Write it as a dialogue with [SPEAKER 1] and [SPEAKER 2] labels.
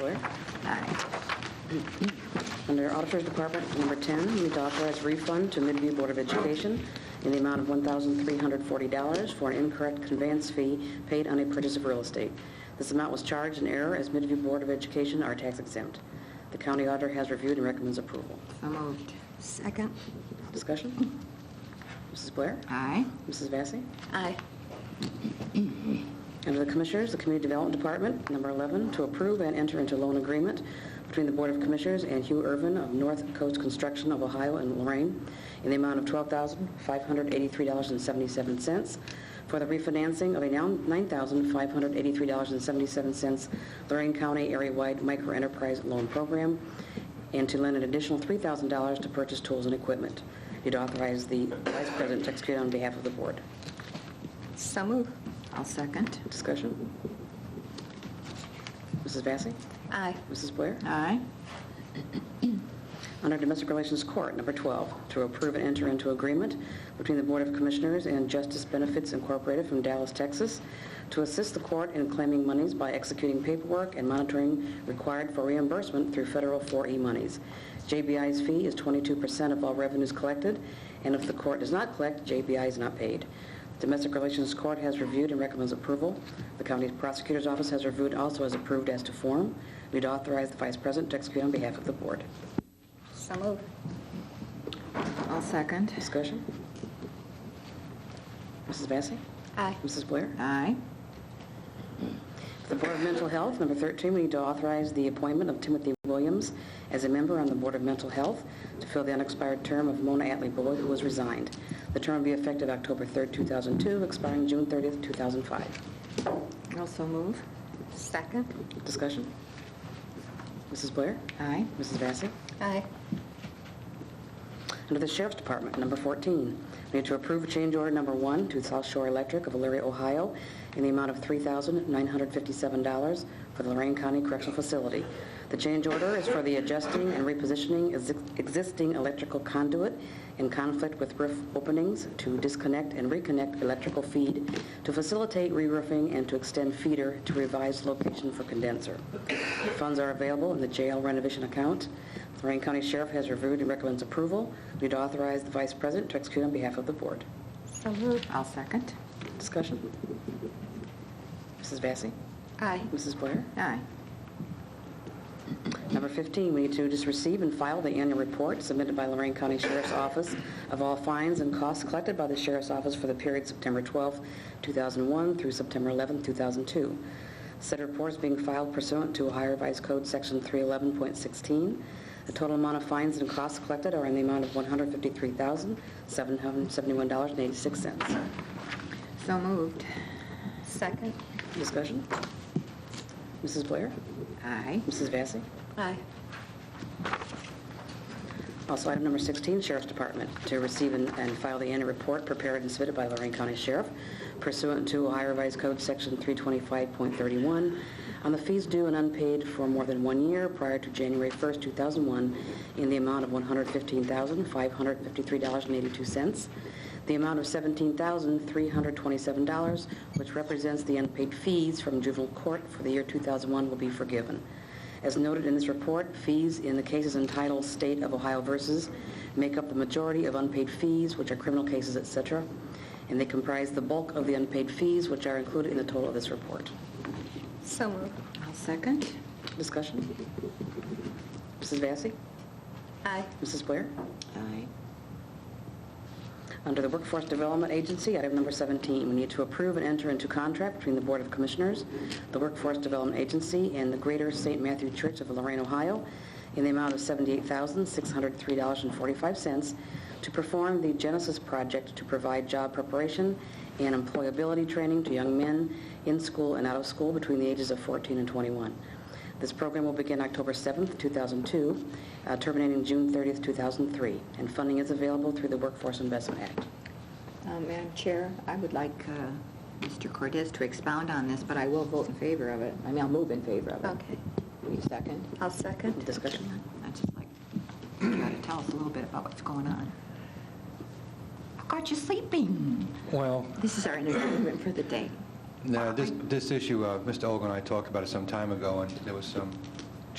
[SPEAKER 1] Lawyer? Under Auditor's Department, number 10, we need to authorize refund to Midview Board of Education in the amount of $1,340 for an incorrect conveyance fee paid on a purchase of real estate. This amount was charged in error as Midview Board of Education are tax exempt. The county auditor has reviewed and recommends approval.
[SPEAKER 2] So moved. Second.
[SPEAKER 1] Discussion? Mrs. Blair?
[SPEAKER 2] Aye.
[SPEAKER 1] Mrs. Vacy?
[SPEAKER 2] Aye.
[SPEAKER 1] Under the Commissioners, the Community Development Department, number 11, to approve and enter into loan agreement between the Board of Commissioners and Hugh Irvin of North Coast Construction of Ohio and Lorraine in the amount of $12,583.77 for the refinancing of a now $9,583.77 Lorraine County area-wide microenterprise loan program, and to lend an additional $3,000 to purchase tools and equipment. You'd authorize the Vice President to execute on behalf of the Board.
[SPEAKER 2] So moved. I'll second.
[SPEAKER 1] Discussion? Mrs. Vacy?
[SPEAKER 2] Aye.
[SPEAKER 1] Mrs. Blair?
[SPEAKER 2] Aye.
[SPEAKER 1] Under Domestic Relations Court, number 12, to approve and enter into agreement between the Board of Commissioners and Justice Benefits Incorporated from Dallas, Texas, to assist the court in claiming monies by executing paperwork and monitoring required for reimbursement through federal 4E monies. JBI's fee is 22% of all revenues collected, and if the court does not collect, JBI is not paid. Domestic Relations Court has reviewed and recommends approval. The county prosecutor's office has reviewed, and also has approved as to form. We'd authorize the vice president to execute on behalf of the board.
[SPEAKER 2] So moved. I'll second.
[SPEAKER 1] Discussion? Mrs. Vacy?
[SPEAKER 2] Aye.
[SPEAKER 1] Mrs. Blair?
[SPEAKER 2] Aye.
[SPEAKER 1] The Board of Mental Health, number 13, we need to authorize the appointment of Timothy Williams as a member on the Board of Mental Health to fill the unexpired term of Mona Atley Boyd, who has resigned. The term will be effective October 3rd, 2002, expiring June 30th, 2005.
[SPEAKER 2] Also move. Second.
[SPEAKER 1] Discussion? Mrs. Blair?
[SPEAKER 2] Aye.
[SPEAKER 1] Mrs. Vacy?
[SPEAKER 2] Aye.
[SPEAKER 1] Under the Sheriff's Department, number 14, we need to approve change order number one to South Shore Electric of Elyria, Ohio, in the amount of $3,957 for the Lorraine County Correctional Facility. The change order is for the adjusting and repositioning ex- existing electrical conduit in conflict with roof openings to disconnect and reconnect electrical feed, to facilitate re-roofing, and to extend feeder to revised location for condenser. Funds are available in the jail renovation account. Lorraine County Sheriff has reviewed and recommends approval. We'd authorize the Vice President to execute on behalf of the Board.
[SPEAKER 2] So moved. I'll second.
[SPEAKER 1] Discussion? Mrs. Vacy?
[SPEAKER 2] Aye.
[SPEAKER 1] Mrs. Blair?
[SPEAKER 2] Aye.
[SPEAKER 1] Number 15, we need to just receive and file the annual report submitted by Lorraine County Sheriff's Office of all fines and costs collected by the Sheriff's Office for the period September 12, 2001 through September 11, 2002. Said report is being filed pursuant to Ohio Revised Code Section 311.16. The total amount of fines and costs collected are in the amount of $153,771.86.
[SPEAKER 2] So moved. Second.
[SPEAKER 1] Discussion? Mrs. Blair?
[SPEAKER 2] Aye.
[SPEAKER 1] Mrs. Vacy?
[SPEAKER 2] Aye.
[SPEAKER 1] Also, item number 16, Sheriff's Department, to receive and and file the annual report prepared and submitted by Lorraine County Sheriff pursuant to Ohio Revised Code Section 325.31 on the fees due and unpaid for more than one year prior to January 1st, 2001, in the amount of $115,553.82, the amount of $17,327, which represents the unpaid fees from juvenile court for the year 2001, will be forgiven. As noted in this report, fees in the cases entitled State of Ohio versus make up the majority of unpaid fees, which are criminal cases, et cetera, and they comprise the bulk of the unpaid fees, which are included in the total of this report.
[SPEAKER 2] So moved. I'll second.
[SPEAKER 1] Discussion? Mrs. Vacy?
[SPEAKER 2] Aye.
[SPEAKER 1] Mrs. Blair?
[SPEAKER 2] Aye.
[SPEAKER 1] Under the Workforce Development Agency, item number 17, we need to approve and enter into contract between the Board of Commissioners, the Workforce Development Agency, and the Greater St. Matthew Church of Lorraine, Ohio, in the amount of $78,603.45 to perform the Genesis Project to provide job preparation and employability training to young men in school and out of school between the ages of 14 and 21. This program will begin October 7th, 2002, uh, terminating June 30th, 2003, and funding is available through the Workforce Investment Act.
[SPEAKER 3] Uh, Madam Chair, I would like uh, Mr. Cortez to expound on this, but I will vote in favor of it. I mean, I'll move in favor of it.
[SPEAKER 2] Okay.
[SPEAKER 3] Will you second?
[SPEAKER 2] I'll second.
[SPEAKER 1] Discussion?
[SPEAKER 3] I'd just like you to tell us a little bit about what's going on. I caught you sleeping.
[SPEAKER 4] Well,
[SPEAKER 3] This is our entertainment for the day.
[SPEAKER 4] no, this, this issue, uh, Mr. Olga and I talked about it some time ago, and there was some